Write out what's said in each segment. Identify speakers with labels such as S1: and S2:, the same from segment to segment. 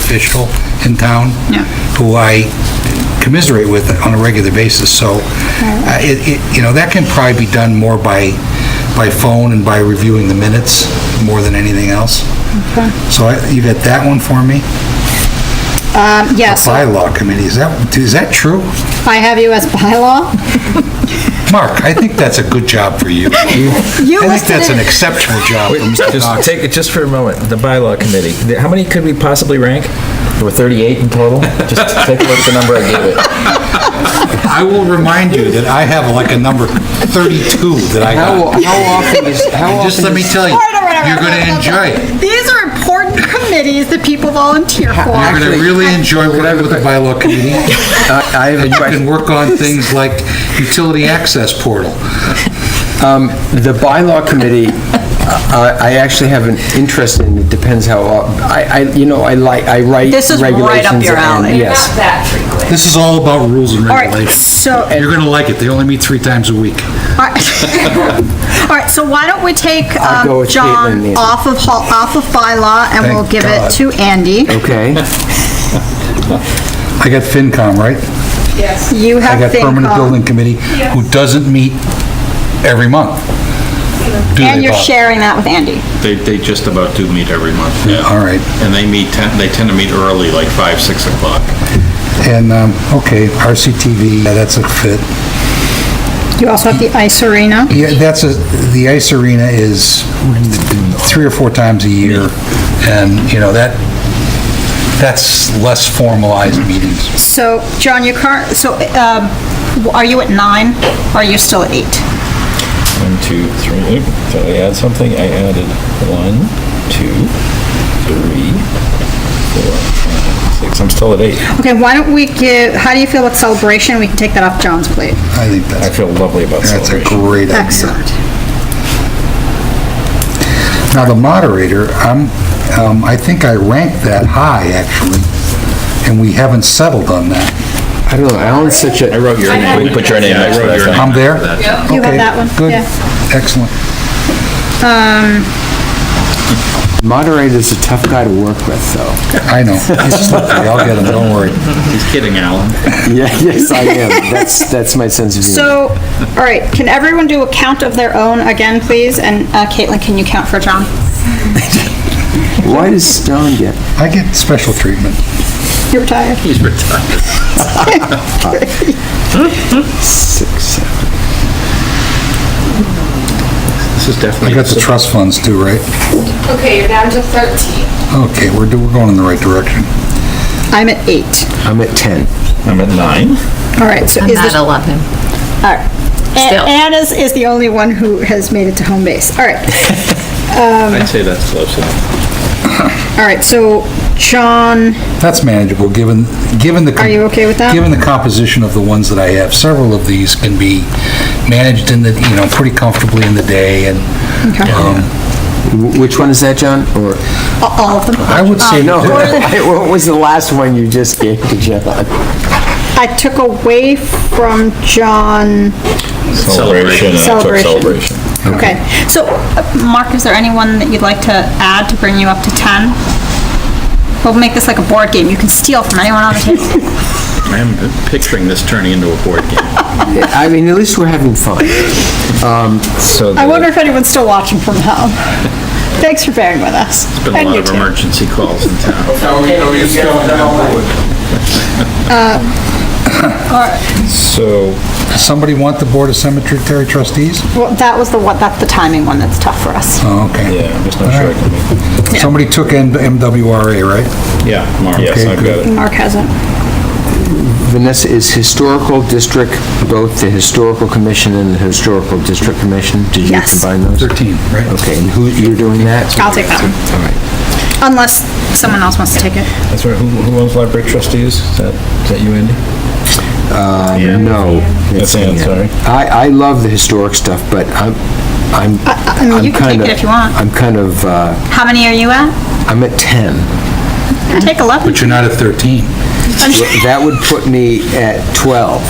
S1: official in town.
S2: Yeah.
S1: Who I commiserate with on a regular basis, so, uh, it, it- you know, that can probably be done more by, by phone and by reviewing the minutes more than anything else. So I- you got that one for me?
S2: Um, yeah, so
S1: Bylaw committee, is that, is that true?
S2: I have you as bylaw.
S1: Mark, I think that's a good job for you. I think
S2: listed
S1: that's an
S2: it.
S1: exceptional job for
S3: Wait,
S1: Mr.
S3: Just
S1: Doc.
S3: take it just for a moment, the bylaw committee. The- How many could we possibly rank? There were 38 in total. Just take a look at the number I gave it.
S1: I will remind you that I have like a number 32 that I
S4: How,
S1: got.
S4: how often is, how
S1: And just let
S4: often
S1: me
S4: is,
S1: tell you,
S2: All right, all right, all right,
S1: you're going to
S2: all right, all
S1: enjoy
S2: right.
S1: it.
S2: These are important committees that people volunteer
S1: You're
S2: for.
S1: going to
S4: Actually-
S1: really enjoy working with the bylaw committee. uh,
S4: I I have
S1: And
S4: a
S1: you can
S4: question.
S1: work on things like utility access portal.
S4: Um, The bylaw committee, I I actually have an interest in, it depends how, op- I, I, you know, I like, I write regulations.
S5: This is right up your
S4: and-
S5: alley.
S4: Yes.
S6: that frequent.
S1: This is all about rules and
S2: All right,
S1: regulations.
S2: so-
S1: You're going to like it. They only meet three times a week.
S2: All right. All right, so why don't we take
S4: I'll go
S2: um,
S4: with Caitlin
S2: John
S4: then.
S2: off of, hall- off of bylaw and we'll
S1: Thank
S2: give it
S1: God.
S2: to Andy.
S4: Okay.
S1: I got FinCom, right?
S2: You
S1: I got
S2: have
S1: Permanent Building
S2: FinCom.
S1: Committee, who doesn't meet every month. Do
S2: And
S1: they,
S2: you're
S1: Bob?
S2: sharing that with Andy.
S7: They, they just about do meet every month, yeah.
S1: All right.
S7: And they meet, ten- they tend to meet early, like 5, 6 o'clock.
S1: And, um, okay, RCTV, yeah, that's a fit.
S2: You also have the ice arena.
S1: Yeah, that's a, the ice arena is three or four times a year, and, you know, that, that's less formalized meetings.
S2: So, John, you current, so um, are you at nine? or Are you still at eight?
S3: One, two, three. Oop, Did I add something? I added one, two, three, four, five, six. I'm still at eight.
S2: Okay, why don't we give, how do you feel about celebration? We can take that off John's plate.
S1: I think
S3: I
S1: that's,
S3: feel lovely about
S1: that's a
S3: celebration.
S1: great idea.
S2: Excellent.
S1: Now, the moderator, I'm, um, I think I ranked that high, actually, and we haven't settled on that.
S4: I don't know, Alan's such a,
S3: I wrote your name. We put your name
S7: Yeah, I
S3: next to
S7: wrote
S3: that.
S7: your
S3: thing.
S7: name.
S1: I'm there?
S2: You have
S1: Okay,
S2: that one?
S1: Good,
S2: Yeah.
S1: excellent.
S4: moderator's a tough guy to work with, though.
S1: I know. It's slippery. I'll get him, don't worry.
S7: He's kidding, Alan.
S4: Yeah, yes, I am. That's, that's my sense of humor.
S2: So, all right, can everyone do a count of their own again, please? And uh, Caitlin, can you count for John?
S4: Why does Stone get,
S1: I get special treatment.
S2: You're retired.
S7: He's retired.
S4: six, seven?
S7: This is
S1: I
S7: definitely,
S1: got the trust funds too, right?
S6: Okay, you're down to 13.
S1: Okay, we're, do- we're going in the right direction.
S2: I'm at eight.
S4: I'm at 10.
S3: I'm at nine.
S2: All right, so
S5: I'm
S2: is
S5: not
S2: this, all
S5: 11.
S2: right.
S5: Still.
S2: A- Anne is, is the only one who has made it to home base. All right,
S7: I'd say that's close enough.
S2: all right, so John,
S1: That's manageable, given, given the...
S2: Are you okay with that?
S1: Given the composition of the ones that I have, several of these can be managed in the, you know, pretty comfortably in the day, and um,
S4: Wh- Which one is that, John? Or,
S2: a- all of them. Um,
S1: I would say...
S4: no, what was the last one you just gave to John?
S2: I took away from John,
S3: Celebration. and I took
S2: Celebration.
S3: Celebration.
S2: okay. So, uh, Mark, is there anyone that you'd like to add to bring you up to 10? We'll make this like a board game. You can steal from anyone on the table.
S7: I'm picturing this turning into a board game.
S4: I mean, at least we're having fun.
S3: So
S2: I
S3: the-
S2: wonder if anyone's still watching from home. Thanks for bearing with us.
S7: It's been a lot of emergency calls in town.
S3: So
S1: Somebody want the Board of Cemetery Trustees?
S2: Well, that was the one, that's the timing one that's tough for us.
S1: Oh, okay.
S3: Yeah, I'm just not sure I can make it.
S1: Somebody took M- MWRA, right?
S3: Yeah, Mark. Yes,
S1: Okay,
S3: I've got it.
S2: Mark hasn't.
S4: Vanessa, is historical district both the historical commission and the historical district commission? Did you
S2: Yes.
S4: combine those?
S1: 13, right?
S4: Okay, and who, you're doing that?
S2: I'll take that one,
S4: All right.
S2: unless someone else wants to take it.
S3: That's right. Who who owns library trustees? Is that, is that you, Andy?
S4: Uh, No.
S3: That's Ann, sorry.
S4: I, I love the historic stuff, but I'm, I'm,
S2: I mean,
S4: I'm
S2: Uh, you can take
S4: kind of...
S2: it if you want.
S4: I'm kind of, uh,
S2: How many are you at?
S4: I'm at 10.
S2: Take 11.
S1: But you're not at 13.
S4: That would put me at 12.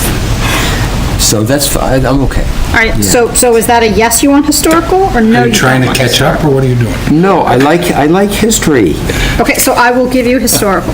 S4: so that's fine, I'm okay.
S2: All right, so, so is that a yes you want historical, or no?
S1: Are you
S2: you
S1: trying to
S2: don't?
S1: catch up, or what are you doing?
S4: No, I like, I like history.
S2: Okay, so I will give you historical.